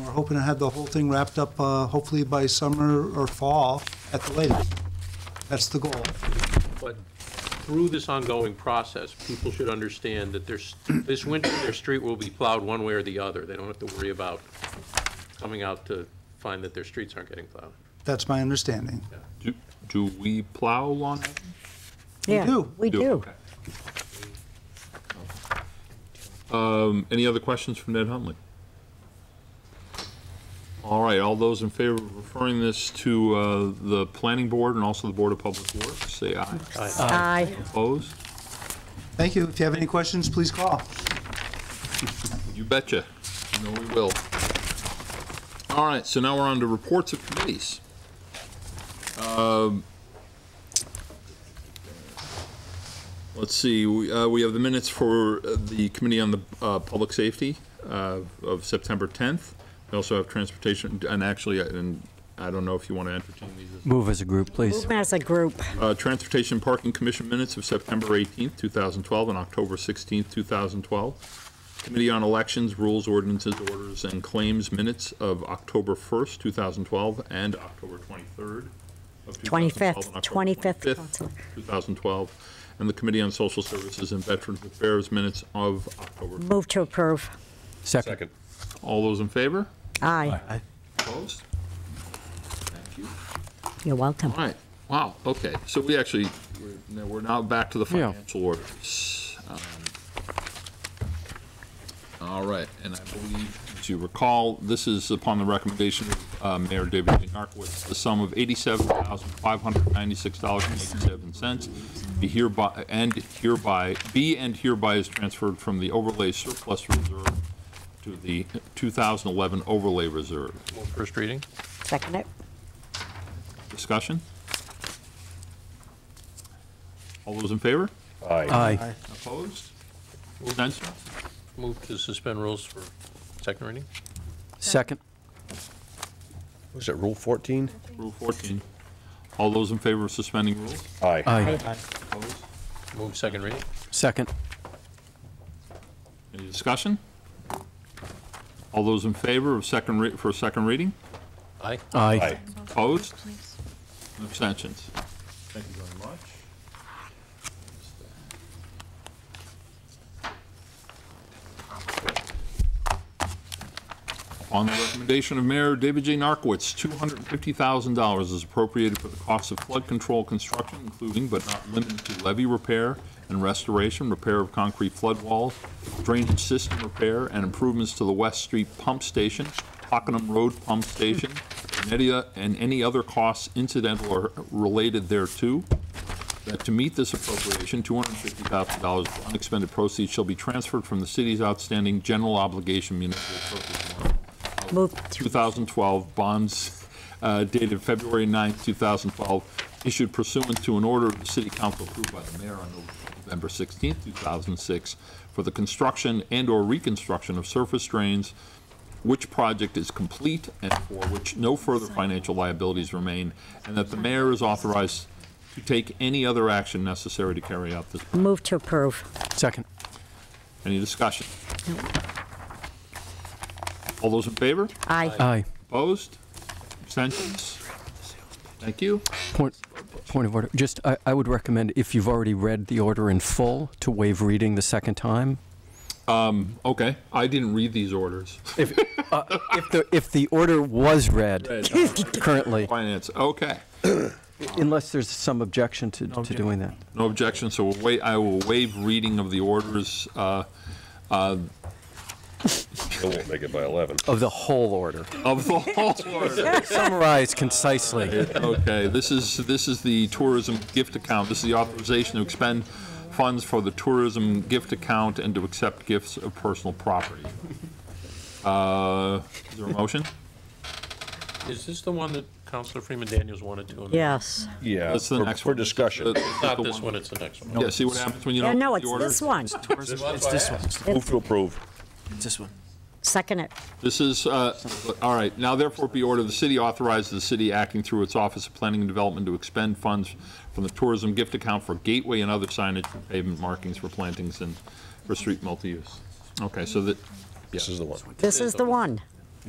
we're hoping to have the whole thing wrapped up uh, hopefully by summer or fall at the latest. That's the goal. But through this ongoing process, people should understand that there's, this winter, their street will be plowed one way or the other. They don't have to worry about coming out to find that their streets aren't getting plowed. That's my understanding. Do, do we plow lawn? We do. We do. Okay. Um, any other questions from Ned Huntley? All right, all those in favor of referring this to, uh, the planning board and also the Board of Public Works, say aye. Aye. Opposed? Thank you. If you have any questions, please call. You betcha. You know we will. All right, so now we're on to reports of committees. Um, Let's see, we, uh, we have the minutes for uh, the Committee on the uh, Public Safety uh, of September 10th. We also have transportation, and actually, I- and I don't know if you want to entertain these. as- Move as a group, please. Movement as a group. uh, Transportation Parking Commission minutes of September 18th, 2012, and October 16th, 2012. Committee on Elections, Rules, Ordinances, Orders, and Claims minutes of October 1st, 2012, and October 23rd of 2012. 25th, and October 25th, 25th, Counselor. 2012. And the Committee on Social Services and Veterans Affairs minutes of October. Move to approve. Second. All those in favor? Aye. Opposed? Thank you. You're welcome. All right, wow, okay, so we actually, we're- now we're now back to the Yeah. financial orders. Um, All right, and I believe, as you recall, this is upon the recommendation of uh, Mayor David J. Narcoitz, the sum of $87,596.87 be hereby, and hereby, be and hereby is transferred from the overlay surplus reserve to the 2011 overlay reserve. First reading? Second it. Discussion? All those in favor? Aye. Opposed? Abstentions? Move to suspend rules for second reading? Second. Was it Rule 14? Rule 14. All those in favor of suspending rules? Aye. Aye. Opposed? Move second reading? Second. Any discussion? All those in favor of second, rea- for second reading? Aye. Aye. Opposed? Abstentions? Thank you very much. On the recommendation of Mayor David J. Narcoitz, $250,000 is appropriated for the cost of flood control construction, including but not limited to levee repair and restoration, repair of concrete flood walls, drainage system repair, and improvements to the West Street Pump Station, Hockenham Road Pump Station, and any o- and any other costs incidental or related thereto that to meet this appropriation, $250,000 of unexpended proceeds shall be transferred from the city's outstanding general obligation municipal purpose warrant, Move to, 2012 bonds uh, dated February 9th, 2012, issued pursuant to an order of the city council approved by the mayor on November 16th, 2006, for the construction and/or reconstruction of surface drains, which project is complete and for which no further financial liabilities remain, and that the mayor is authorized to take any other action necessary to carry out this. move to approve. Second. Any discussion? All those in favor? Aye. Aye. Opposed? Abstentions? Thank you. Point, point of order. Just, I, I would recommend, if you've already read the order in full, to waive reading the second time. Okay, I didn't read these orders. If, uh, if the, if the order was read currently, Finance, okay. unless there's some objection to, to doing that. No objection, so we'll wait, I will waive reading of the orders. uh, uh, They won't make it by 11. Of the whole order. Of the whole order. Summarize concisely. Okay, this is, this is the tourism gift account. This is the authorization to expend funds for the tourism gift account and to accept gifts of personal property. Uh, Is there a motion? Is this the one that Counselor Freeman Daniels wanted to? amend? Yes. Yeah. That's the for- next For one. discussion. This is the Not this one, it's the next one. Yeah, see what happens when you Yeah, don't. no, read the it's order? this one. It's this one. Move to approve. Second it. This is, uh, all right, now therefore be ordered, the city authorizes the city acting through its Office of Planning and Development to expend funds from the tourism gift account for gateway and other signage, for pavement markings for plantings and for street multi-use. Okay, so that, This is the one. This is the one.